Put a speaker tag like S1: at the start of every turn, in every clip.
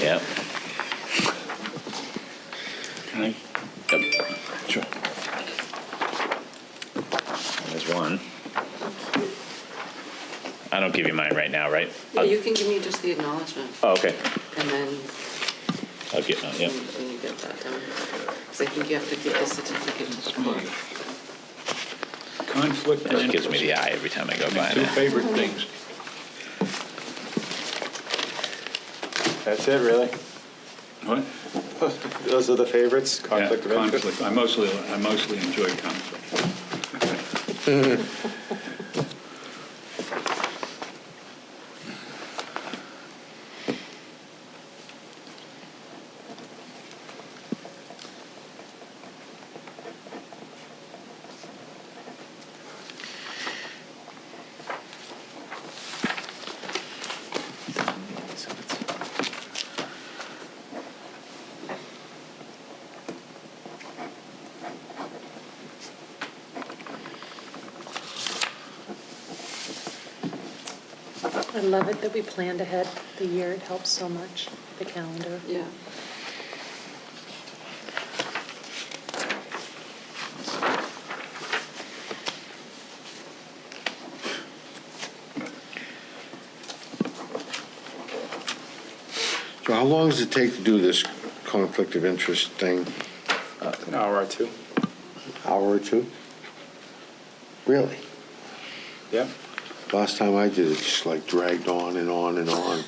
S1: Yep. Can I- Yep.
S2: Sure.
S1: There's one. I don't give you mine right now, right?
S3: Yeah, you can give me just the acknowledgement,
S1: Oh, okay.
S3: and then
S1: I'll get mine, yep.
S3: when when you get that done. Because I think you have to give the certificate to the board.
S2: Conflict of
S1: It gives me the
S2: interest.
S1: eye every time I go
S2: My
S1: by
S2: two
S1: now.
S2: favorite things.
S4: That's it, really?
S2: What?
S4: Those are the favorites,
S2: Yeah,
S4: conflict of interest?
S2: Conflict, I mostly, I mostly enjoy conflict.
S5: I love it that we planned ahead the year. It helps so much, the calendar.
S3: Yeah.
S6: So how long does it take to do this conflict of interest thing?
S4: An hour or two?
S6: Hour or two? Really?
S4: Yeah.
S6: Last time I did it, just like dragged on and on and on.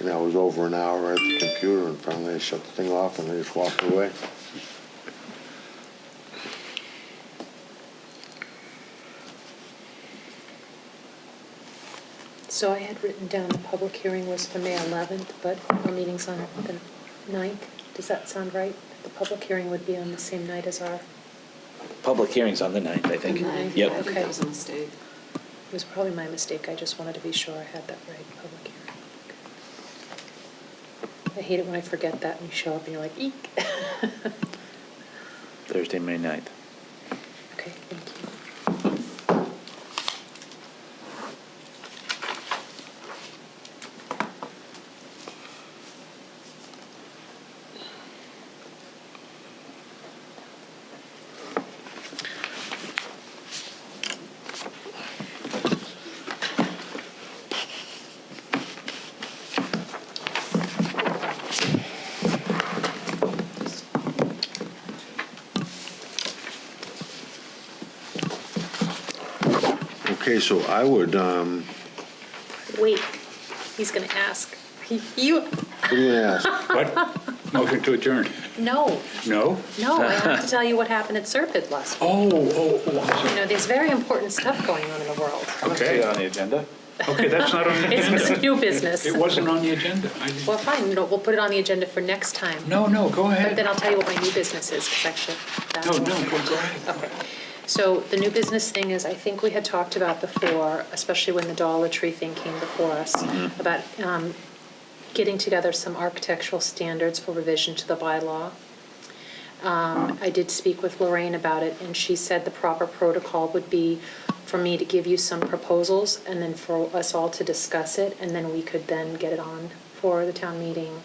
S6: And I was over an hour at the computer and finally I shut the thing off and I just walked away.
S5: So I had written down the public hearing was for May 11th, but our meeting's on the 9th. Does that sound right? The public hearing would be on the same night as our, it
S1: Public hearing's on the ninth, I think.
S3: And I- I
S1: Yep.
S3: think that was a mistake.
S5: was probably my mistake. I just wanted to be sure I had that right, public hearing. I hate it when I forget that and you show up and you're like, eek.
S1: Thursday, May ninth.
S5: Okay, thank you.
S6: Okay, so I would, um,
S5: Wait, he's gonna ask. You,
S6: what do you ask?
S2: What? Motion to adjourn?
S5: no,
S2: No?
S5: no, I have to tell you what happened at Serpide last week.
S2: Oh, oh, oh, I'm
S5: You know, there's very important stuff going on in the world.
S2: sorry. okay,
S4: On the agenda?
S2: okay, that's not on the
S5: It's
S2: agenda.
S5: new business.
S2: It wasn't on the agenda. I didn't-
S5: Well, fine, no, we'll put it on the agenda for next time.
S2: No, no, go
S5: But
S2: ahead.
S5: then I'll tell you what my new business is, because actually, that's.
S2: No, no, go go ahead.
S5: So the new business thing is, I think we had talked about before, especially when the Dollar Tree thing came before us,
S2: Mm-hmm.
S5: about um, getting together some architectural standards for revision to the bylaw. Um, I did speak with Lorraine about it, and she said the proper protocol would be for me to give you some proposals, and then for us all to discuss it, and then we could then get it on for the town meeting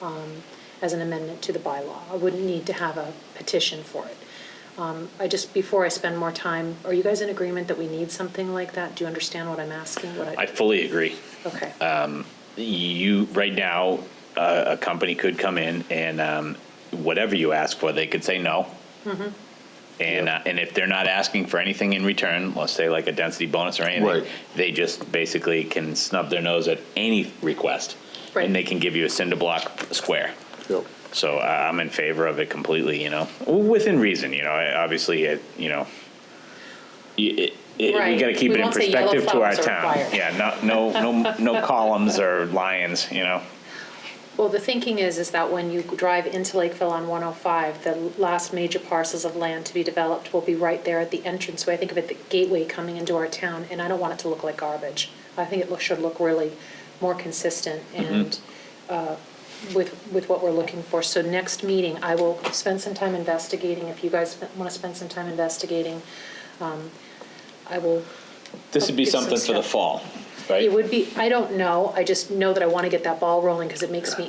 S5: um, as an amendment to the bylaw. I wouldn't need to have a petition for it. Um, I just, before I spend more time, are you guys in agreement that we need something like that? Do you understand what I'm asking? What
S1: I fully agree.
S5: Okay.
S1: You, right now, uh, a, a company could come in and, um, whatever you ask for, they could say no. And, uh, and if they're not asking for anything in return, let's say like a density bonus or
S6: Right.
S1: anything, they just basically can snub their nose at any request.
S5: Right.
S1: And they can give you a cinder block square.
S6: Yep.
S1: So I- I'm in favor of it completely, you know, within reason, you know, I- obviously, it- you know, you- it- it- we
S5: Right.
S1: gotta keep
S5: We
S1: it in
S5: won't say yellow
S1: perspective to our
S5: flowers are
S1: town.
S5: required.
S1: Yeah, not, no, no, no columns or lions, you know?
S5: Well, the thinking is, is that when you drive into Lakeville on 105, the last major parcels of land to be developed will be right there at the entrance, where I think of it, the gateway coming into our town, and I don't want it to look like garbage. I think it look- should look really more consistent and uh, with, with what we're looking for. So next meeting, I will spend some time investigating, if you guys want to spend some time investigating, um, I will
S1: This would be
S5: Get some
S1: something for the
S5: stuff.
S1: fall, right?
S5: It would be, I don't know, I just know that I want to get that ball rolling because it makes me